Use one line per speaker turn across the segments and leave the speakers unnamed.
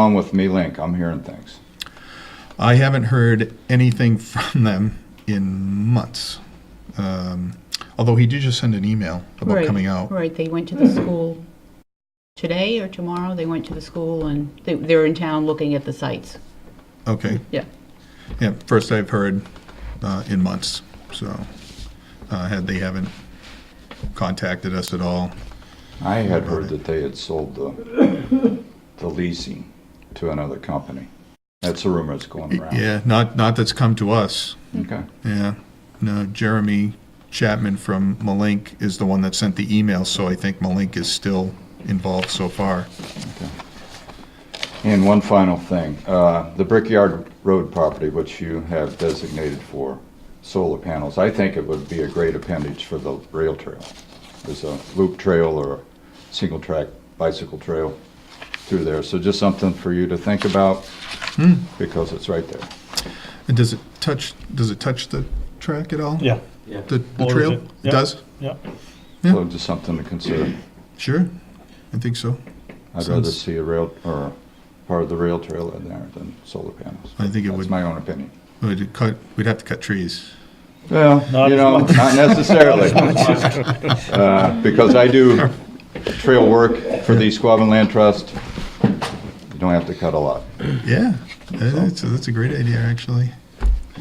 on with Me Link? I'm hearing things.
I haven't heard anything from them in months. Um, although he did just send an email about
Right,
coming out.
Right, they went to the school today or tomorrow, they went to the school and they, they're in town looking at the sites.
Okay.
Yeah.
Yeah. First I've heard uh, in months. So uh, had they haven't contacted us at all.
I had heard that they had sold the, the leasing to another company. That's a rumor that's going around.
Yeah. Not not that's come to us.
Okay.
Yeah. No. Jeremy Chapman from Malink is the one that sent the email. So I think Malink is still involved so far.
And one final thing, uh, the Brickyard Road property, which you have designated for solar panels, I think it would be a great appendage for the rail trail. There's a loop trail or a single track bicycle trail through there, so just something for you to think about
Hmm.
because it's right there.
And does it touch? Does it touch the track at all?
Yeah,
The, the
Borders
trail?
it.
It
Yeah.
does?
yeah.
Yeah.
So just something to consider.
Sure. I think so.
I'd rather
Sounds-
see a rail, or part of the rail trail in there than solar panels.
I think it
That's
would,
my own opinion.
we'd cut, we'd have to cut trees.
Well,
Not
you
as
know,
much.
not necessarily. Uh, Because I do trail work for the Squabbin Land Trust. You don't have to cut a lot.
Yeah, that's, that's a great idea, actually.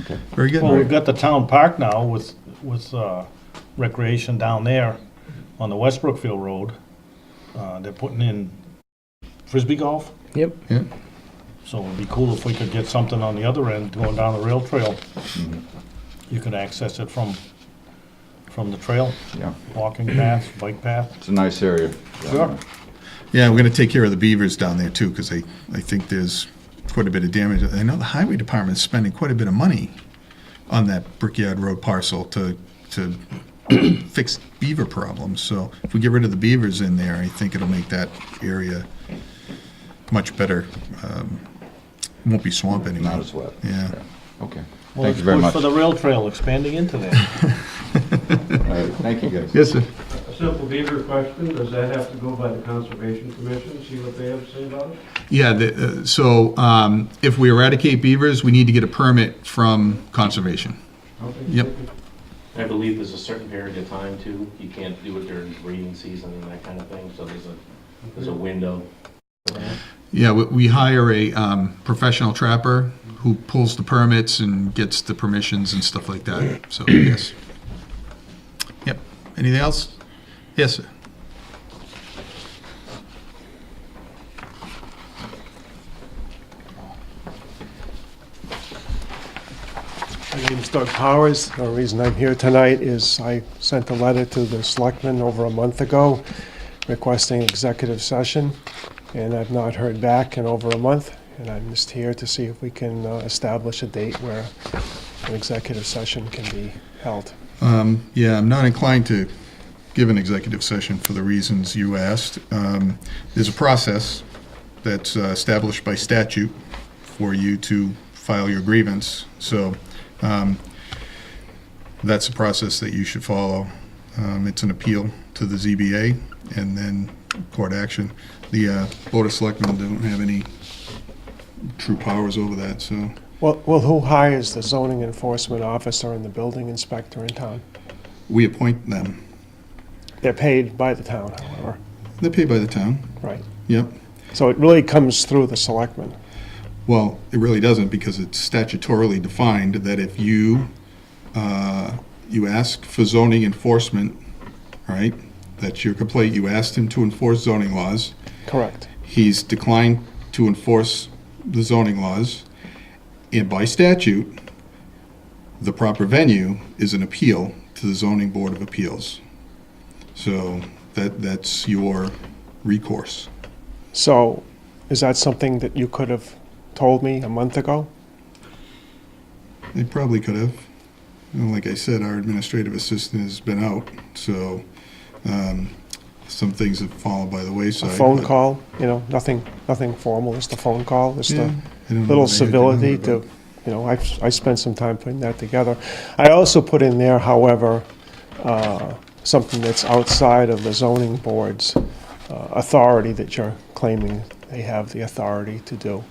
Okay.
Very
Well, we've
good.
got the town park now with, with uh, recreation down there on the West Brookfield Road. Uh, They're putting in frisbee golf,
Yep.
Yeah.
so it'd be cool if we could get something on the other end going down the rail trail.
Mm-hmm.
You could access it from, from the trail,
Yeah,
walking path, bike path.
it's a nice area.
Sure.
Yeah, we're gonna take care of the beavers down there too, because I, I think there's quite a bit of damage. I know the highway department is spending quite a bit of money on that Brickyard Road parcel to, to fix beaver problems. So if we get rid of the beavers in there, I think it'll make that area much better. Um, Won't be swamp anymore.
Not as wet.
Yeah.
Okay.
Well,
Thank
it's
you very
good
much.
For the rail trail expanding into there.
All right, Thank you, guys.
Yes, sir.
A simple beaver question, does that have to go by the Conservation Commission, see what they have to say about it?
Yeah, the, uh, so um, if we eradicate beavers, we need to get a permit from conservation.
Okay,
Yep.
thank you.
I believe there's a certain period of time too, you can't do it during breeding season and that kind of thing, so there's a, there's a window.
Yeah, we, we hire a um, professional trapper who pulls the permits and gets the permissions and stuff like that. So yes. Yep. Anything else? Yes, sir.
My name is Doug Powers. The reason I'm here tonight is I sent a letter to the selectmen over a month ago requesting executive session, and I've not heard back in over a month, and I'm just here to see if we can uh, establish a date where an executive session can be held.
Um, Yeah, I'm not inclined to give an executive session for the reasons you asked. Um, There's a process that's uh, established by statute for you to file your grievance, so um, that's the process that you should follow. Um, It's an appeal to the ZBA and then court action. The uh, Board of Selectmen don't have any true powers over that, so.
Well, well, who hires the zoning enforcement officer and the building inspector in town?
We appoint them.
They're paid by the town, however,
They're paid by the town,
right?
yep.
So it really comes through the selectmen.
Well, it really doesn't because it's statutorily defined that if you, uh, you ask for zoning enforcement, right? That's your complaint. You asked him to enforce zoning laws.
Correct.
He's declined to enforce the zoning laws. And by statute, the proper venue is an appeal to the zoning board of appeals. So that, that's your recourse.
So, is that something that you could have told me a month ago?
They probably could have. And like I said, our administrative assistant has been out, so um, some things have fallen by the
A
wayside.
phone
but-
call, you know, nothing, nothing formal, just a phone call, just
Yeah,
a
I don't know what
little
they had to
civility
do
to,
about-
you know, I, I spent some time putting that together. I also put in there, however, uh, something that's outside of the zoning board's uh, authority that you're claiming they have the authority to do.